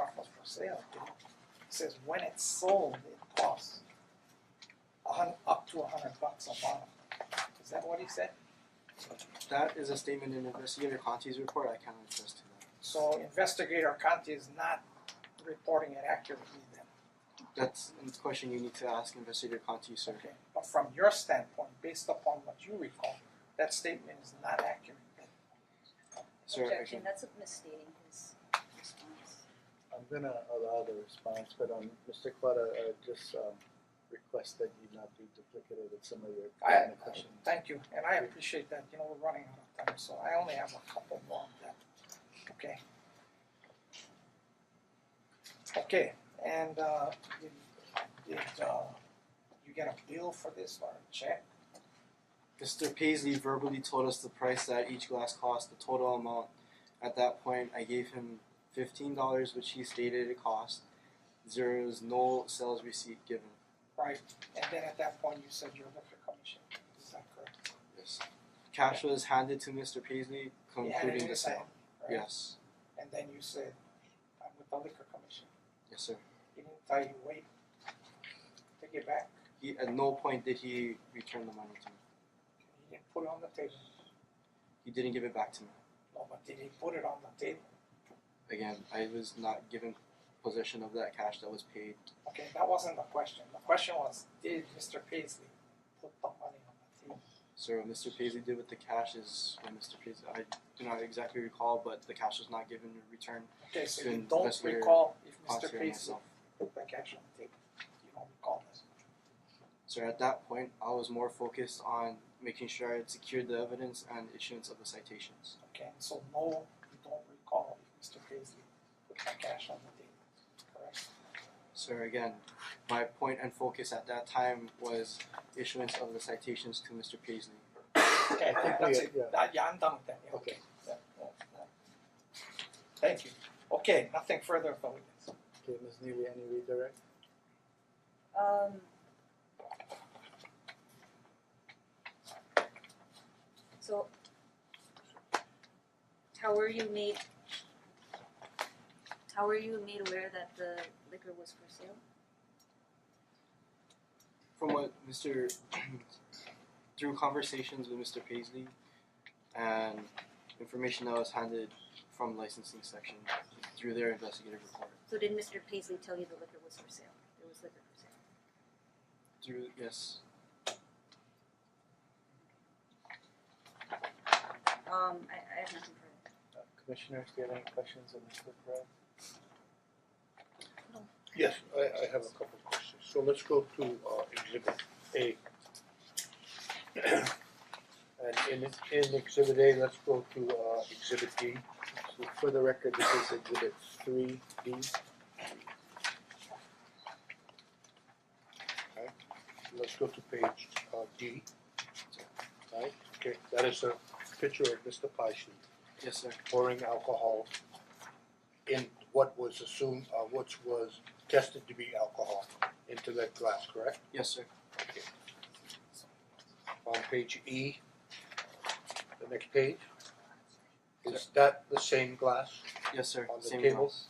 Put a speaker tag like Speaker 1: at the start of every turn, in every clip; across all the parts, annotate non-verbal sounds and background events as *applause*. Speaker 1: articles for sale, it says when it's sold, it costs a hun- up to a hundred bucks a bottle. Is that what he said?
Speaker 2: That is a statement in Investigator Conti's report, I cannot attest to that.
Speaker 1: So investigator Conti is not reporting it accurately then,
Speaker 2: That's a question you need to ask Investigator Conti, sir.
Speaker 1: okay? But from your standpoint, based upon what you recall, that statement is not accurate then.
Speaker 2: Sir, I
Speaker 3: Objection,
Speaker 2: can,
Speaker 3: that's misstating his response.
Speaker 4: I'm gonna allow the response, but um Mr. Quata, uh just um request that you not be duplicative with some of your
Speaker 1: I-
Speaker 4: kind of questions.
Speaker 1: Thank you, and I appreciate that, you know, we're running out of time, so I only have a couple more left, okay? Okay, and uh did did uh you get a bill for this or a check?
Speaker 2: Mr. Paisley verbally told us the price that each glass cost, the total amount. At that point, I gave him fifteen dollars, which he stated it cost. There is no sales receipt given.
Speaker 1: Right, and then at that point you said your liquor commission, is that correct?
Speaker 2: Yes. Cash was handed to Mr. Paisley,
Speaker 1: You had it
Speaker 2: concluding
Speaker 1: in
Speaker 2: the
Speaker 1: his hand,
Speaker 2: sale.
Speaker 1: right?
Speaker 2: Yes,
Speaker 1: And then you said, I'm with the liquor commission,
Speaker 2: yes, sir.
Speaker 1: he didn't tell you wait, take it back,
Speaker 2: He, at no point did he return the money to me.
Speaker 1: he didn't put it on the table,
Speaker 2: He didn't give it back to me.
Speaker 1: no, but did he put it on the table?
Speaker 2: Again, I was not given possession of that cash that was paid.
Speaker 1: Okay, that wasn't the question. The question was, did Mister Paisley put the money on the table?
Speaker 2: So what Mr. Paisley did with the cash is what Mr. Paisley. I do not exactly recall, but the cash was not given in return.
Speaker 1: Okay, so you
Speaker 2: Didn't
Speaker 1: don't
Speaker 2: Mr.
Speaker 1: recall if
Speaker 2: Conti
Speaker 1: Mister
Speaker 2: or
Speaker 1: Paisley
Speaker 2: myself.
Speaker 1: put the cash on the table. You don't recall this.
Speaker 2: So at that point, I was more focused on making sure I had secured the evidence and issuance of the citations.
Speaker 1: Okay, and so no, you don't recall if Mister Paisley put the cash on the table. Correct?
Speaker 2: So again, my point and focus at that time was issuance of the citations to Mr. Paisley.
Speaker 1: Okay, I think that's it.
Speaker 4: Yeah, yeah.
Speaker 1: That- yeah, I'm done with that. Yeah,
Speaker 4: Okay.
Speaker 1: Yeah, yeah, yeah. Thank you. Okay, nothing further of the witness.
Speaker 4: Okay, Ms. Neely, any redirect?
Speaker 3: Um. So. How were you made? How were you made aware that the liquor was for sale?
Speaker 2: From what Mr. *clears throat* through conversations with Mr. Paisley and information that was handed from licensing section through their investigative report.
Speaker 3: So did Mister Paisley tell you the liquor was for sale? There was liquor for sale.
Speaker 2: Through yes,
Speaker 3: Um, I I have nothing further.
Speaker 4: Uh, Commissioners, do you have any questions of Mr. Perez?
Speaker 5: Yes, I I have a couple of questions, so let's go to uh exhibit A. *clears throat* And in in exhibit A, let's go to uh exhibit D.
Speaker 4: So for the record, this is exhibit three B.
Speaker 5: let's go to page uh D. Right, okay, that is a picture of Mr. Paishley
Speaker 2: yes, sir.
Speaker 5: pouring alcohol in what was assumed, uh which was tested to be alcohol into that glass, correct?
Speaker 2: Yes, sir.
Speaker 5: on page E, the next page. Is that the same glass
Speaker 2: Yes, sir.
Speaker 5: On the
Speaker 2: Same
Speaker 5: table?
Speaker 2: glass.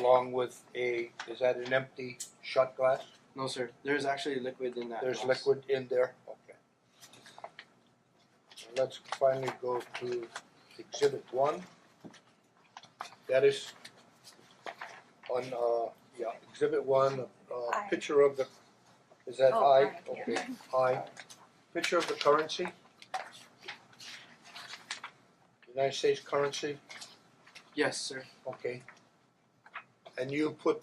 Speaker 5: along with a, is that an empty shot glass?
Speaker 2: No, sir. There's actually liquid in that.
Speaker 5: There's
Speaker 2: glass.
Speaker 5: liquid in there, okay. And Let's finally go to exhibit one. That is on, uh, yeah, exhibit one, uh,
Speaker 3: Aye.
Speaker 5: picture of the, is that
Speaker 3: Oh,
Speaker 5: I?
Speaker 3: aye, yeah.
Speaker 5: Okay, I. Picture of the currency. United States currency.
Speaker 2: Yes, sir.
Speaker 5: Okay. And you put,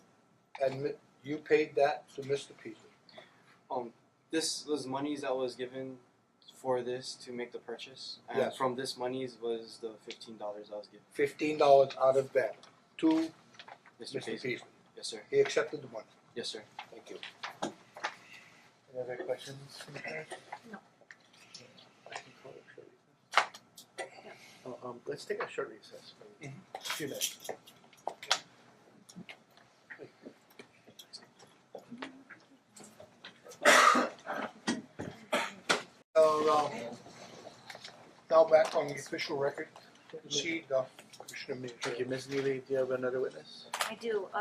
Speaker 5: and mi- you paid that to Mr. Peasley.
Speaker 2: This was monies that was given for this to make the purchase, and
Speaker 5: Yes.
Speaker 2: from this monies was the fifteen dollars I was given.
Speaker 5: Fifteen dollars out of that to
Speaker 2: Mr.
Speaker 5: Mr.
Speaker 2: Paisley.
Speaker 5: Peasley.
Speaker 2: Yes, sir.
Speaker 5: He accepted the money.
Speaker 2: Yes, sir.
Speaker 5: Thank you. Any other questions?
Speaker 3: No.
Speaker 5: I can call it short.
Speaker 4: Uh um let's take a short recess, please. Few minutes.
Speaker 5: So, um, now back on the official record, proceed, uh, Commissioner Mears.
Speaker 4: Thank you, Ms. Neely, do you have another witness?
Speaker 3: I do,